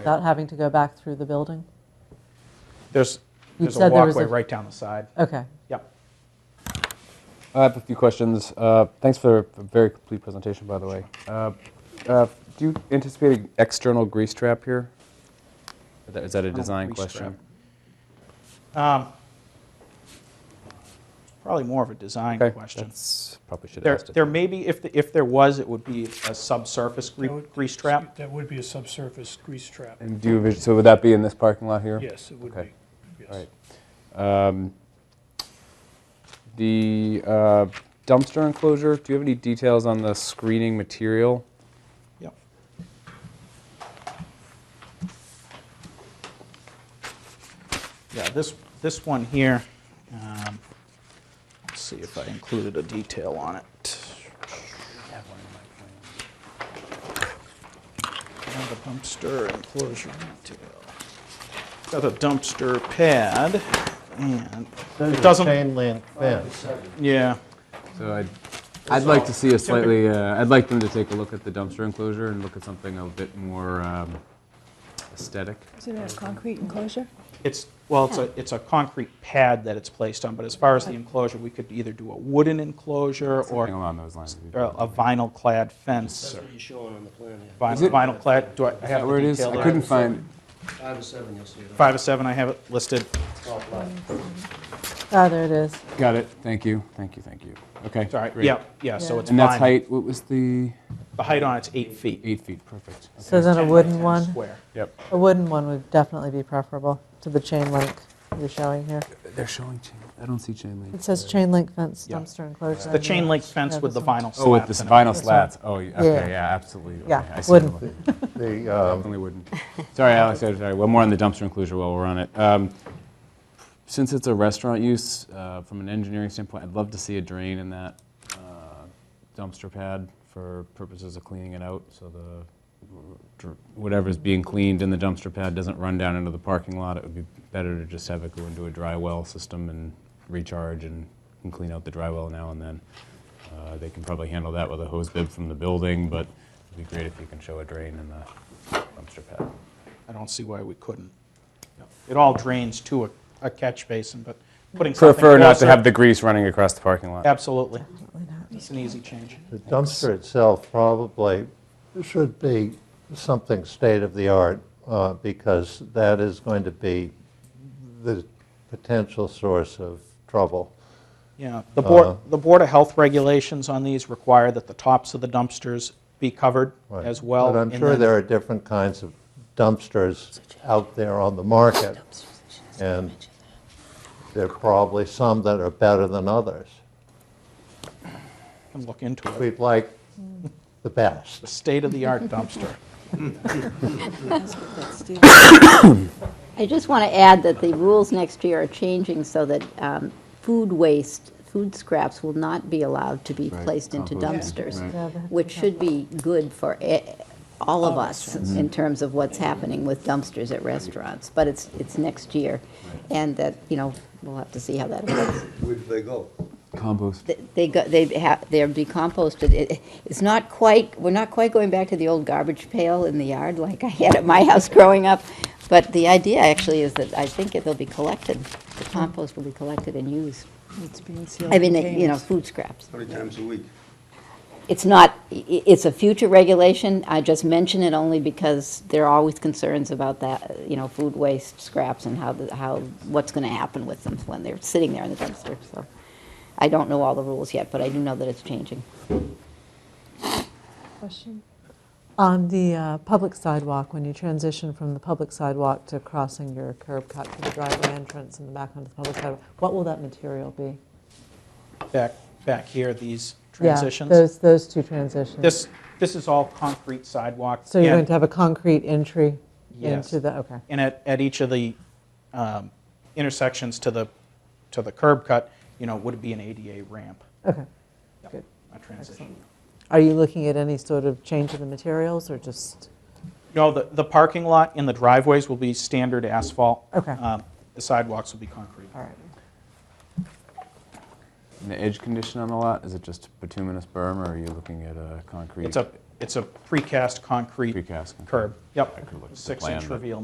without having to go back through the building? There's, You there's a said there was walkway a- right down the side. Okay. Yep. I have a few questions. Uh, thanks for a very complete presentation, by the way. Uh, uh, do you anticipate an external grease trap here? Is that- Is that a design grease question? Um, Probably more of a design Okay, question. that's- probably should have There, asked it. there may be, if, the- if there was, it would be a subsurface gre- That would- grease trap. That would be a subsurface grease trap. And do you, envis- so would that be in this parking lot here? Yes, it would Okay. be, All yes. right. Um, The uh, dumpster enclosure, do you have any details on the screening material? Yep. Yeah, this, this one here, um, let's see if I included a detail on it. Another dumpster enclosure detail. Got a dumpster pad, and Those it are doesn't, Chain link fence. yeah, So I'd, I'd like to see a slightly, uh, I'd like them to take a look at the dumpster enclosure and look at something a bit more um, aesthetic. Isn't it a concrete enclosure? It's, well, it's a, it's a concrete pad that it's placed on, but as far as the enclosure, we could either do a wooden enclosure Something or along those lines. would be or good. a vinyl clad fence. or That's what you're showing on the plan here. vin- Is it- Vinyl clad, do I I Is have that where the it is? detail I there? couldn't find, Five to seven, you'll see that. Five of seven, I have it listed. Top left. Ah, there it is. got it, thank you, thank you, thank you. Okay. Sorry, great. yeah, yeah, so it's fine. And that's height, what was the, The height on it's eight feet. eight feet, perfect. So then a wooden 10 one, Square. Yep. a wooden one would definitely be preferable to the chain link you're showing here. They're showing chain, I don't see chain link. It says chain link fence Yeah. dumpster enclosure. The chain link fence Yeah, with the this one. vinyl slats. Oh, with the in it. vinyl slats, oh, y- Yeah. okay, yeah, absolutely. Yeah, Okay, I see it. wooden. The, um, Definitely wouldn't. Sorry, Alex, I'm sorry. One more on the dumpster enclosure while we're on it. Um, Since it's a restaurant use, uh, from an engineering standpoint, I'd love to see a drain in that uh, dumpster pad for purposes of cleaning it out, so the, dr- whatever's being cleaned in the dumpster pad doesn't run down into the parking lot. It would be better to just have it go into a dry well system and recharge and and clean out the dry well now and then. Uh, They can probably handle that with a hose bib from the building, but it'd be great if you can show a drain in the dumpster pad. I don't see why we couldn't. It all drains to a, a catch basin, but putting something Prefer not to closer- have the grease running across the parking lot. Absolutely. It's an easy change. the dumpster itself probably should be something state-of-the-art, uh, because that is going to be the potential source of trouble. Yeah, the Uh-huh. Board, the Board of Health regulations on these require that the tops of the dumpsters be covered Right. as well. But I'm and sure then- there are different kinds of dumpsters out there on the market, and there are probably some that are better than others. Can look into it. We'd like The the best. state-of-the-art dumpster. I just want to add that the rules next year are changing so that um, food waste, food scraps will not be allowed to be placed into dumpsters, which should be good for e- all of us in terms of what's happening with dumpsters at restaurants. But it's, it's next year, and that, you know, we'll have to see how that goes. Where do they go? Compost. Th- They go, they have, they're decomposted. It- It's not quite, we're not quite going back to the old garbage pail in the yard like I had at my house growing up. But the idea actually is that I think it- they'll be collected, the compost will be collected and used. It's being sealed. I mean, they- you know, containers. food scraps. How many times a week? It's not, i- i- it's a future regulation. I just mention it only because there are always concerns about that, you know, food waste scraps and how, the- how, what's going to happen with them when they're sitting there in the dumpster. So I don't know all the rules yet, but I do know that it's changing. Question? On the uh, public sidewalk, when you transition from the public sidewalk to crossing your curb cut to the driveway entrance and back onto the public sidewalk, what will that material be? Back, back here, these Yeah, transitions. those, those two transitions. This, this is all concrete sidewalk. So you're and- going to have a concrete entry Yes. into the, okay. And at, at each of the um, intersections to the, to the curb cut, you know, would be an ADA ramp, Okay, good. a transition. Are you looking at any sort of change in the materials or just, No, the, the parking lot and the driveways will be standard asphalt. Okay. Um, The sidewalks will be concrete. all right? And the edge condition on the lot, is it just bituminous berm, or are you looking at a concrete? It's a, it's a precast concrete Precast concrete. curb. Yep, I could look at the plan, six-inch but- reveal